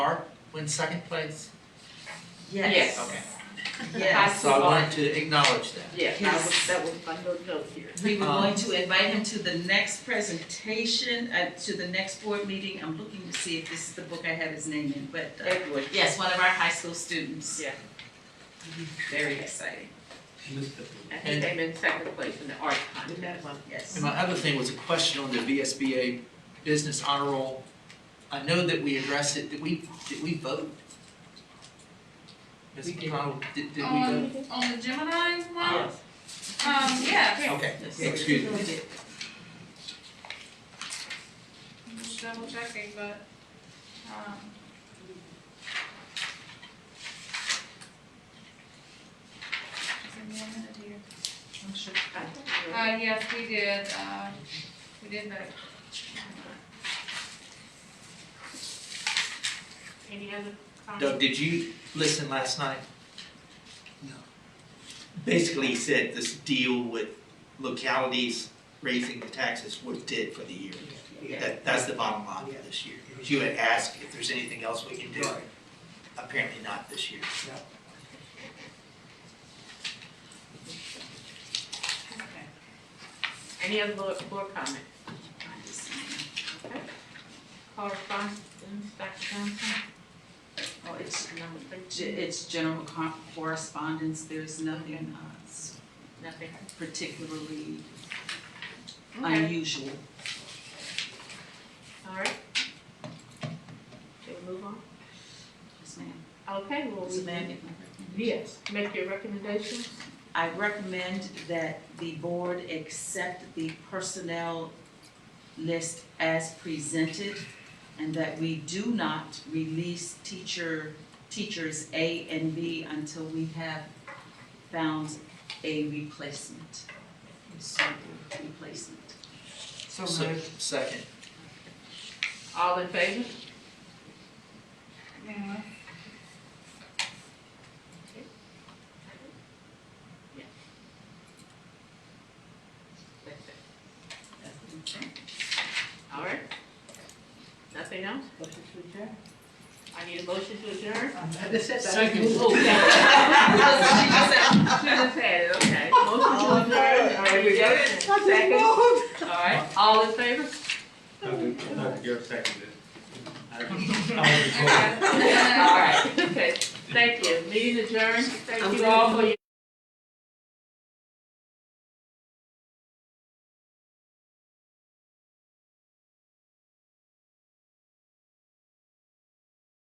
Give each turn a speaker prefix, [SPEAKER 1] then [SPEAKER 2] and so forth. [SPEAKER 1] Mark wins second place?
[SPEAKER 2] Yes.
[SPEAKER 1] Okay.
[SPEAKER 2] Yes.
[SPEAKER 1] So I wanted to acknowledge that.
[SPEAKER 3] Yeah, I
[SPEAKER 2] Yes.
[SPEAKER 3] was, that was my little note here.
[SPEAKER 2] We were
[SPEAKER 1] Um,
[SPEAKER 2] going to invite him to the next presentation, uh, to the next board meeting. I'm looking to see if this is the book I have his name in, but, uh,
[SPEAKER 3] Edward.
[SPEAKER 2] yes, one of our high school students.
[SPEAKER 3] Yeah.
[SPEAKER 2] Very exciting,
[SPEAKER 3] And he came in second place in the art contest.
[SPEAKER 2] yes.
[SPEAKER 1] And my other thing was a question on the VSBA Business Honor Roll. I know that we addressed it, did we, did we vote? Ms.
[SPEAKER 3] We did. Um, uh,
[SPEAKER 1] McConnell, did, did we vote?
[SPEAKER 4] On, on the Gemini one, um,
[SPEAKER 3] Yes.
[SPEAKER 4] yeah,
[SPEAKER 1] Okay,
[SPEAKER 2] Yes.
[SPEAKER 1] excuse me.
[SPEAKER 4] I'm just double checking, but, um. Just give me one minute here.
[SPEAKER 3] I'm sure.
[SPEAKER 4] Uh, yes, we did, um, we did vote.
[SPEAKER 3] Any other
[SPEAKER 1] Doug, did you listen last night? No. Basically, he said this deal with localities raising the taxes was dead for the year. That, that's the bottom line for this year. You had asked if there's anything else we can do. Apparently not this year.
[SPEAKER 3] Any other board, board comment? Correspondence, Dr. Johnson?
[SPEAKER 2] Oh, it's,
[SPEAKER 3] Number
[SPEAKER 2] ge-
[SPEAKER 3] three?
[SPEAKER 2] it's general co- correspondence, there's nothing uh, s-
[SPEAKER 3] Nothing.
[SPEAKER 2] particularly
[SPEAKER 3] Okay,
[SPEAKER 2] unusual.
[SPEAKER 3] all right. Shall we move on?
[SPEAKER 2] Yes, ma'am.
[SPEAKER 3] Okay, well,
[SPEAKER 2] Does the man
[SPEAKER 3] we,
[SPEAKER 2] make my recommendation?
[SPEAKER 3] yes, make your recommendations.
[SPEAKER 2] I recommend that the board accept the personnel list as presented and that we do not release teacher, teachers A and B until we have found a replacement. A suitable replacement.
[SPEAKER 3] So
[SPEAKER 1] So- Second.
[SPEAKER 3] All in favor?
[SPEAKER 4] Yeah.
[SPEAKER 3] All right. Nothing else? Motion to adjourn. I need a motion to adjourn.
[SPEAKER 5] Second.
[SPEAKER 3] Oh, yeah. She just said it, okay. Motion to adjourn. All right, we got it. Second. All right, all in favor?
[SPEAKER 5] Dr. Dr. Gill seconded. I-
[SPEAKER 4] Okay.
[SPEAKER 3] All right, okay. Thank you. Meeting adjourned. Thank you all for your.